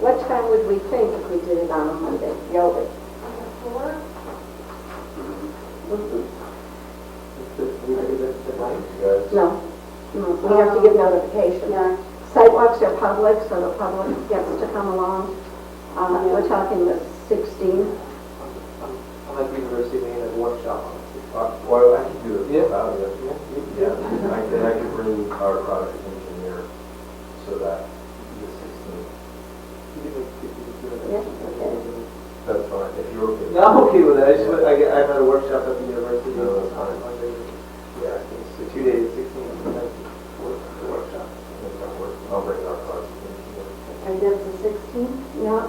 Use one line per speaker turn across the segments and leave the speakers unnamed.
What time would we think if we did it on a Monday, Yoli? No, no, we have to give notification.
Yeah.
Sidewalks are public, so the public gets to come along. Uh, We're talking the 16th.
I like university, we had a workshop on it.
Uh, Well, I could do
Yeah.
it without it. Yeah, I could, I could bring our project engineer so that the 16th,
Yeah,
that's fine, if you're okay.
No, I'm okay with that, I just, went- I, get- I had a workshop at the university
No, that's
on
fine.
Monday.
Yeah,
It's two days, sixteen, the workshop.
if that works, I'll bring our project engineer.
And that's the sixteenth?
Yeah,
I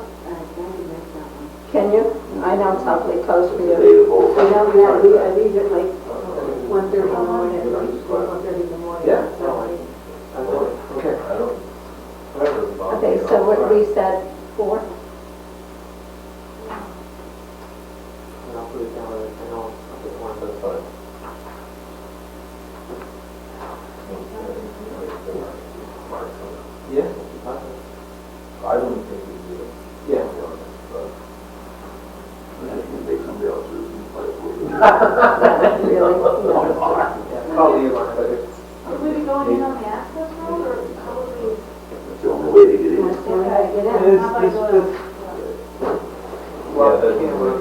can make that one.
can you? I know it's awfully close for you.
Debatable.
So now we have, we, I leave at like one thirty in the morning, one thirty in the morning.
Yeah.
So
I don't- Okay.
I don't, whatever. Bob,
Okay,
you know,
so what
fine.
we said, four?
And I'll put it down, and I'll, I'll get one of those.
That's fine.
Yeah?
I wouldn't think we do it.
Yeah.
But
Yeah, Probably you want it.
Would we be going in on the access road or how would we?
That's the only way to get in.
How about going?
Well,
Yeah, that's-
yeah, we're,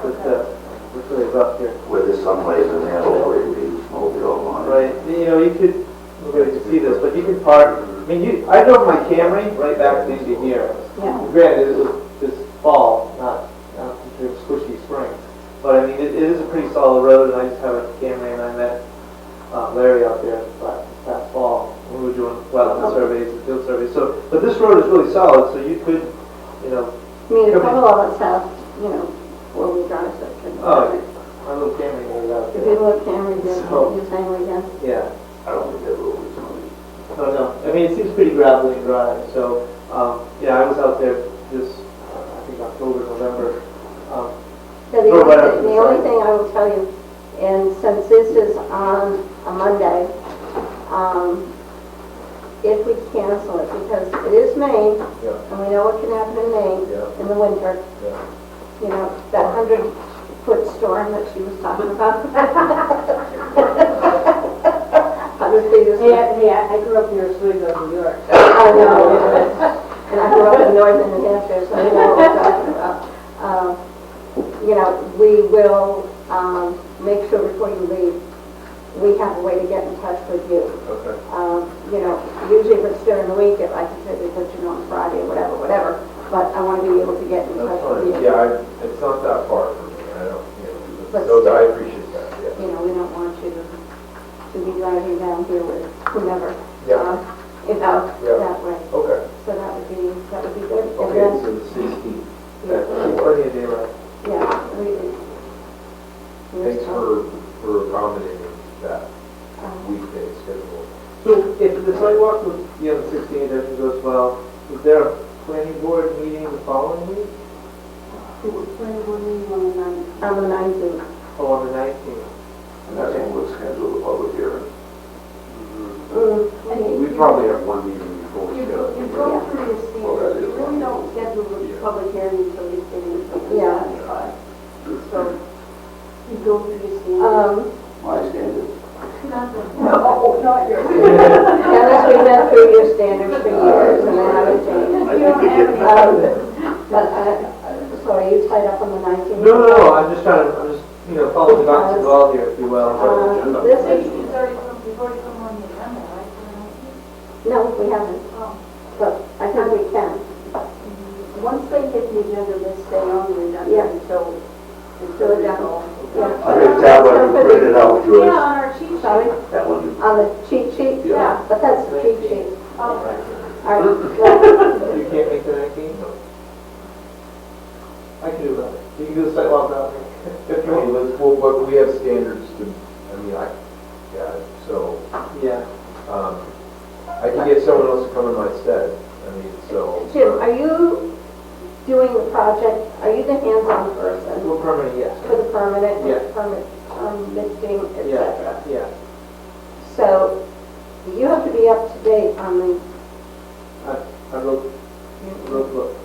but, uh, we're really rough here.
whether someplace in there or it be smoked all on.
Right, you know, you could, nobody can see this, but you could park, I mean, you, I drove my Camry right back to engineer.
Yeah.
Granted, it was this fall, not, not in terms of squishy spring, but I mean, it, it is a pretty solid road, and I just have a Camry, and I met uh, Larry out there last, last fall, when we were doing wetland surveys and field surveys, so, but this road is really solid, so you could, you know,
I mean, a couple of us have, you know, four-wheel drives that can.
oh, my little Camry went out
If you
there.
look, Cameron,
So-
you're you're saying we got
Yeah.
I don't think that road is on.
No, no. I mean, it seems pretty gravelly and dry, so, um, yeah, I was out there this, uh, I think October, November. Um,
So the
Go
only,
right up to
the
the
only
side.
thing I will tell you, and since this is on a Monday, um, if we cancel it, because it is Maine,
Yeah.
and we know what can happen in Maine
Yeah.
in the winter,
Yeah.
you know, that hundred foot storm that she was talking about. Hundred feet is, I
Hey, I, I grew up near Oswego, New York.
know, and I grew up in northern New Hampshire, so I know what we're talking about. Um, you know, we will, um, make sure before you leave, we have a way to get in touch with you.
Okay.
Um, you know, usually if it's during the week, if I can say, put you on Friday, or whatever, whatever, but I wanna be able to get in touch
That's
with you.
fine. Yeah, I, it's not that far from me, I don't, you know,
But
so
still.
I appreciate that, yeah.
you know, we don't want you to, to be driving down here with whomever.
Yeah.
uh, You know,
Yeah.
that way.
Okay.
So that would be, that would be good. And
Okay,
then,
so the 16th.
Yeah.
Plenty of daylight.
yeah, we, we-
Thanks for, for accommodating that
Um,
weekday schedule.
So if the sidewalk was, you know, sixteen, everything goes well, is there a planning board meeting the following week?
It was twenty-one, one, nine.
On the nineteenth,
Oh, on the nineteenth?
And that's when we'll schedule the public hearing.
mm,
We probably have one meeting before we
Your
get
your
it.
broker is the,
Well, that is
you really
one.
don't schedule the public hearing until you get in.
Yeah.
So you go through your
Uh,
standard.
um,
My standard.
No, not yours.
Dennis, we've been through your standards for years, and I haven't
I
changed.
think we get
Um,
past that.
But, uh, so are you tied up on the nineteenth?
No, no, no, I'm just trying to, I'm just, you know, following the dots involved here, if you will.
Uh, this
So
is,
you- It's already come, you've already come on the agenda, right? for the 19th?
no, we haven't,
Oh,
but I think we can.
Once they get the agenda, they stay on the agenda
Yeah.
until.
Fill it down. Yeah.
I think that one you printed out,
Yeah,
George.
on our cheat sheet.
Sorry?
That one you.
On the cheat sheet?
Yeah.
But that's the cheat sheet.
Oh,
All right, well,
You can't make the nineteenth? I can do that. You can do the sidewalk out there. If you want.
Well, but we have standards to, I mean, I, yeah, so,
Yeah.
um, I can get someone else to come in my stead, I mean, so.
Jim, are you doing the project, are you the hands-on person
Well, permanent, yes.
for the permanent,
Yeah.
with permit, permitting, et
Yeah.
cetera?
Yeah,
So you have to be up to date on the,
I, I wrote, wrote the book.